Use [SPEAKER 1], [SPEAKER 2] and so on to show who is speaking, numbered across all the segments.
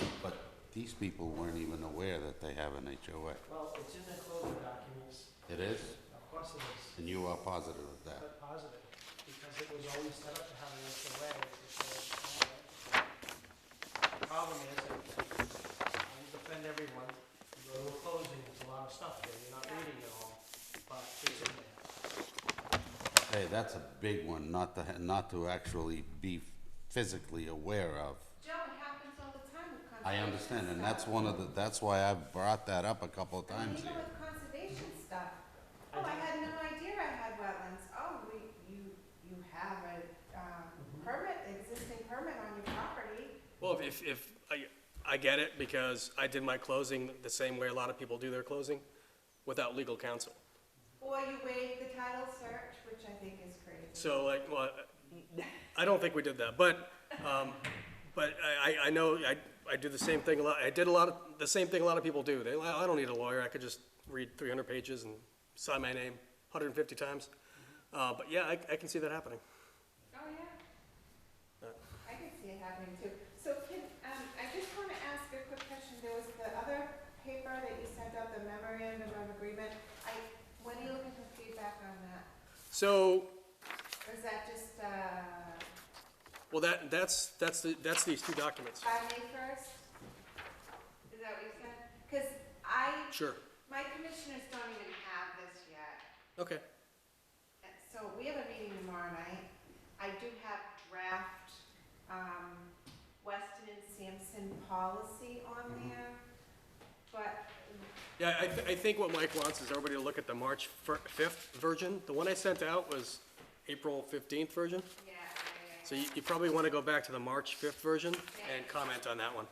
[SPEAKER 1] um,
[SPEAKER 2] these people weren't even aware that they have an HOA.
[SPEAKER 1] Well, it's in the closing documents,
[SPEAKER 2] It is,
[SPEAKER 1] of course it is,
[SPEAKER 2] and you are positive of that.
[SPEAKER 1] but positive, because it was always set up to have an HOA. it's a closed document. The problem is, I will defend everyone, you go to a closing, there's a lot of stuff there, you're not reading it all, but it's in there.
[SPEAKER 2] Hey, that's a big one, not to, ha- not to actually be physically aware of.
[SPEAKER 3] Joe, it happens all the time with conservation
[SPEAKER 2] I understand, and that's one of the, that's why I've brought that up a couple of
[SPEAKER 3] stuff. I mean,
[SPEAKER 2] times
[SPEAKER 3] Even
[SPEAKER 2] here.
[SPEAKER 3] with conservation stuff.
[SPEAKER 1] I
[SPEAKER 3] Oh, I
[SPEAKER 1] did-
[SPEAKER 3] had no idea I had wetlands. Oh, we, you, you have a, um,
[SPEAKER 4] Mm-hmm.
[SPEAKER 3] permit, existing permit on your property.
[SPEAKER 4] Well, if, if, I, I get it, because I did my closing the same way a lot of people do their closing, without legal counsel.
[SPEAKER 3] Or you waive the title search, which I think is crazy.
[SPEAKER 4] So like, well, I don't think we did that, but, um, but I, I- I know, I, I do the same thing a lot, I did a lot of, the same thing a lot of people do. They, I don't need a lawyer, I could just read three hundred pages and sign my name hundred and fifty times. Uh, but yeah, I, I can see that happening.
[SPEAKER 3] Oh, yeah.
[SPEAKER 4] Uh.
[SPEAKER 3] I can see it happening too. So can, um, I just wanna ask a quick question. There was the other paper that you sent out, the memorandum of agreement. I, when are you looking for feedback on that?
[SPEAKER 4] So,
[SPEAKER 3] Or is that just, uh,
[SPEAKER 4] well, that, that's, that's, the that's these two documents,
[SPEAKER 3] by May first? Is that what you said? Cause I,
[SPEAKER 4] sure,
[SPEAKER 3] my commissioners don't even have this yet.
[SPEAKER 4] okay.
[SPEAKER 3] And So we have a meeting tomorrow night. I do have draft, um, Weston and Sampson policy on
[SPEAKER 4] Mm-hmm.
[SPEAKER 3] there, but
[SPEAKER 4] Yeah, I, th- I think what Mike wants is everybody to look at the March fir- fifth version. The one I sent out was April fifteenth version.
[SPEAKER 3] yeah,
[SPEAKER 4] So you, you probably want to go back to the March fifth version and comment on that one.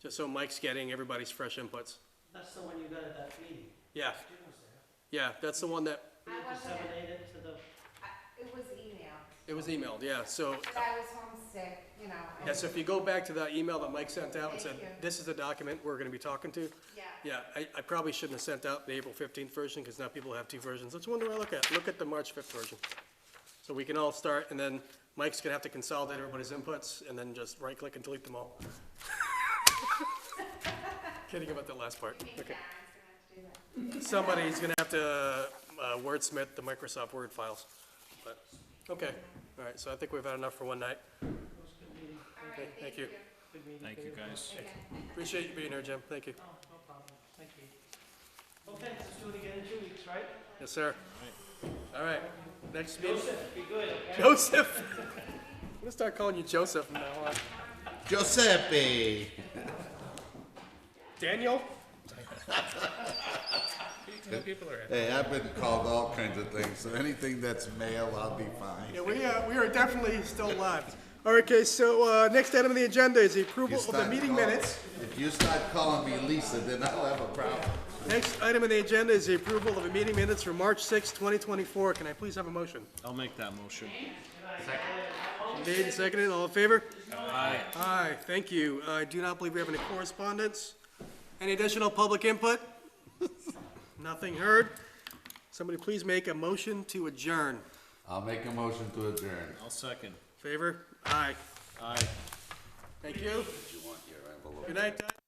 [SPEAKER 4] Just so Mike's getting everybody's fresh inputs.
[SPEAKER 1] That's the one you got at that meeting.
[SPEAKER 4] Yeah,
[SPEAKER 1] Jim was there.
[SPEAKER 4] yeah, that's the one that,
[SPEAKER 3] I
[SPEAKER 1] You
[SPEAKER 3] wasn't at-
[SPEAKER 1] disseminated to the,
[SPEAKER 3] I- it was emailed,
[SPEAKER 4] it was emailed, yeah, so.
[SPEAKER 3] but I was homesick, you know. and-
[SPEAKER 4] Yeah, so if you go back to that email that Mike sent out and said,
[SPEAKER 3] Thank you.
[SPEAKER 4] this is the document we're gonna be talking to.
[SPEAKER 3] Yeah,
[SPEAKER 4] Yeah, I, I probably shouldn't have sent out the April fifteenth version, because now people have two versions. Let's wonder, I look at, look at the March fifth version. So we can all start, and then Mike's gonna have to consolidate everybody's inputs, and then just right-click and delete them all. Kidding about the last part.
[SPEAKER 3] I think
[SPEAKER 4] Okay.
[SPEAKER 3] Karen's gonna have to do that.
[SPEAKER 4] Somebody's gonna have to uh, wordsmith the Microsoft Word files. But, okay, all right, so I think we've had enough for one night.
[SPEAKER 1] those good meeting,
[SPEAKER 3] All
[SPEAKER 4] Okay,
[SPEAKER 3] right,
[SPEAKER 4] thank
[SPEAKER 3] thank
[SPEAKER 4] you.
[SPEAKER 3] you.
[SPEAKER 1] good meeting.
[SPEAKER 5] Thank you,
[SPEAKER 1] for
[SPEAKER 5] guys.
[SPEAKER 3] Again.
[SPEAKER 4] Appreciate you being here, Jim, thank you.
[SPEAKER 1] Oh, no problem, thank you. Okay, let's do it again in two weeks, right?
[SPEAKER 4] Yes, sir. All right, next meeting.
[SPEAKER 1] Joseph, be good, okay?
[SPEAKER 4] Joseph. I'm gonna start calling you Joseph from now on.
[SPEAKER 2] Giuseppe!
[SPEAKER 4] Daniel?
[SPEAKER 2] Hey, I've been called all kinds of things, so anything that's male, I'll be fine.
[SPEAKER 4] Yeah, we, uh, we are definitely still alive. All right, okay, so, uh, next item on the agenda is the
[SPEAKER 2] You
[SPEAKER 4] approval of the
[SPEAKER 2] start
[SPEAKER 4] meeting
[SPEAKER 2] calling-
[SPEAKER 4] minutes.
[SPEAKER 2] If you start calling me Lisa, then I'll have a problem.
[SPEAKER 4] Next item on the agenda is the approval of the meeting minutes for March sixth, twenty twenty-four. Can I please have a motion?
[SPEAKER 5] I'll make that motion.
[SPEAKER 4] Made and seconded, all in favor?
[SPEAKER 5] Aye.
[SPEAKER 4] Aye, thank you. I do not believe we have any correspondence. Any additional public input? Nothing heard. Somebody please make a motion to adjourn.
[SPEAKER 2] I'll make a motion to adjourn.
[SPEAKER 5] I'll second.
[SPEAKER 4] Favor? Aye.
[SPEAKER 5] Aye.
[SPEAKER 4] Thank you.
[SPEAKER 2] Did you want your envelope?
[SPEAKER 4] Good night, Doug.